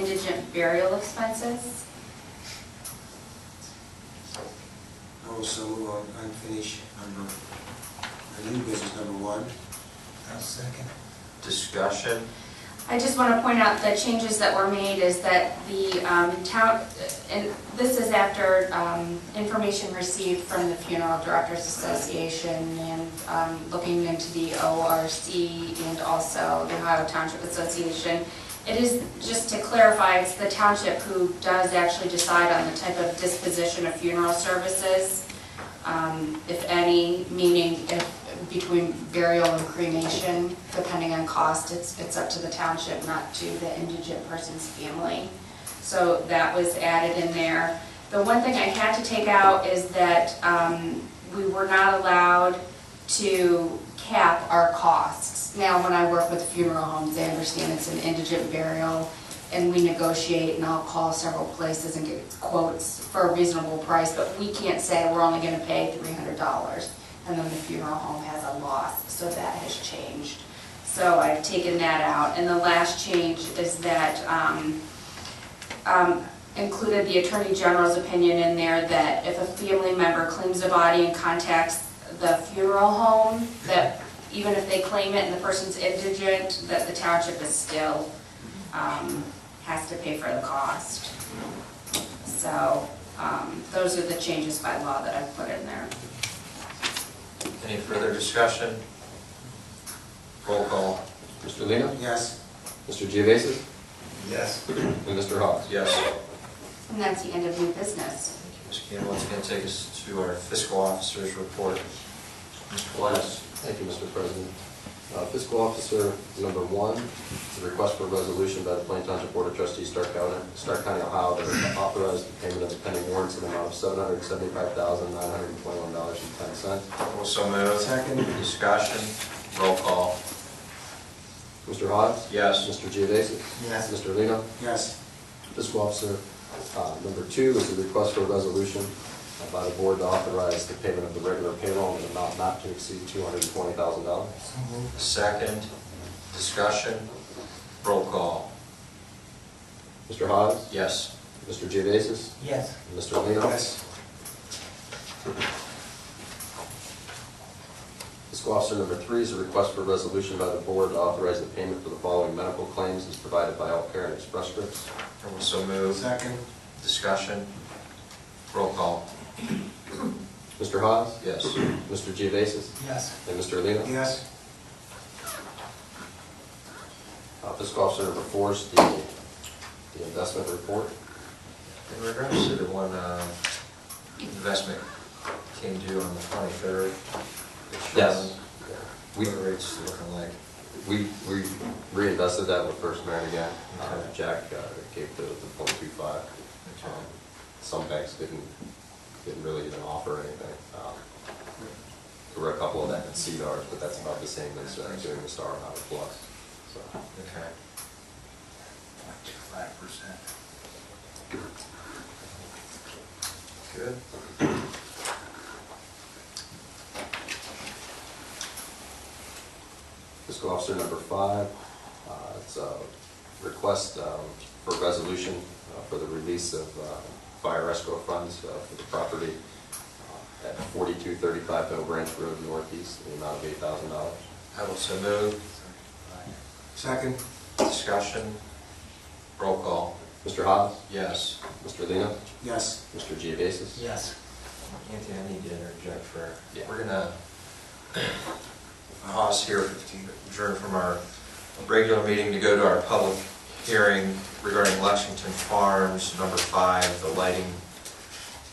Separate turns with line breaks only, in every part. indigent burial expenses.
Also on unfinished, number, uh, new business number one.
I'll second.
Discussion,
I just want to point out the changes that were made is that the um, town, and this is after um, information received from the Funeral Directors Association and um, looking into the ORC and also the Ohio Township Association. It is, just to clarify, it's the township who does actually decide on the type of disposition of funeral services, um, if any, meaning if, between burial and cremation, depending on cost, it's, it's up to the township, not to the indigent person's family. So that was added in there. The one thing I had to take out is that um, we were not allowed to cap our costs. Now, when I work with funeral homes, I understand it's an indigent burial, and we negotiate, and I'll call several places and get quotes for a reasonable price, but we can't say we're only gonna pay three hundred dollars, and then the funeral home has a loss, so that has changed. So I've taken that out, and the last change is that, um, um, included the Attorney General's opinion in there that if a family member claims a body and contacts the funeral home, that even if they claim it and the person's indigent, that the township is still, um, has to pay for the cost. So, um, those are the changes by law that I've put in there.
any further discussion? Roll call,
Mr. Lino?
Yes,
Mr. Geovasis?
Yes.
And Mr. Hawes?
yes.
And that's the end of new business.
Ms. Campbell, it's going to take us to our fiscal officer's report. Mr. Bless.
Thank you, Mr. President. Uh, Fiscal Officer number one, is a request for a resolution by the Plain Township Board of Trustees, Stark County, Stark County, Ohio, to authorize the payment of the pending warrants in the amount of seven hundred seventy-five thousand, nine hundred and twenty-one dollars and ten cents.
Also moved.
Second.
Discussion, roll call,
Mr. Hawes?
Yes.
Mr. Geovasis?
Yes.
Mr. Lino?
yes,
Fiscal Officer, uh, number two is a request for a resolution by the board to authorize the payment of the regular payroll in an amount not to exceed $220,000.
So moved.
second, discussion, roll call,
Mr. Hawes?
yes.
Mr. Geovasis?
Yes.
and Mr. Lino?
yes,
Fiscal Officer number three is a request for a resolution by the board to authorize the payment for the following medical claims as provided by All Care and Express Scripts.
Also moved.
second,
Discussion, roll call,
Mr. Hawes?
yes.
Mr. Geovasis?
Yes.
And Mr. Lino?
yes,
Uh, Fiscal Officer number four is the the investment report.
In regards to the one uh, investment came due on the 23rd.
Yes.
What are rates looking like?
We, we reinvested that with First Merit again. Uh,
Okay.
Jack uh, gave the, the point two five. Um,
Okay.
Some banks didn't, didn't really even offer anything. Um, There were a couple of that in CDARS, but that's about the same as uh, doing the Star Harbor Plus, so.
Okay.
Five percent.
Good.
Fiscal Officer number five, uh, it's a request um, for a resolution uh, for the release of uh, fire escrow funds uh, for the property uh, at 4235 Bell Branch Road Northeast, in the amount of $8,000.
I will so move.
second,
Discussion. Roll call.
Mr. Hawes?
Yes.
Mr. Lino?
yes,
Mr. Geovasis?
Yes.
Anthony, I need to interject for,
Yeah.
we're gonna pause here, adjourn from our regular meeting to go to our public hearing regarding Lexington Farms, number five, the lighting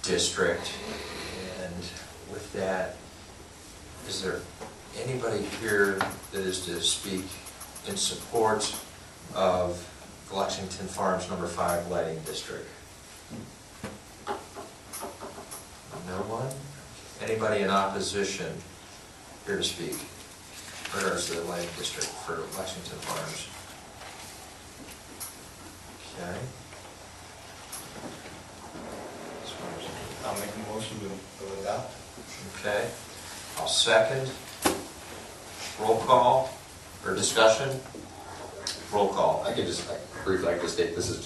district. And with that, is there anybody here that is to speak in support of Lexington Farms, number five, lighting district? No one? Anybody in opposition here to speak? in Regards to the Lake District for Lexington Farms? Okay. As far as-
I'll make a motion to to adopt.
Okay, I'll second. Roll call, or discussion? Roll call.
I could just, I- briefly, I could state, this is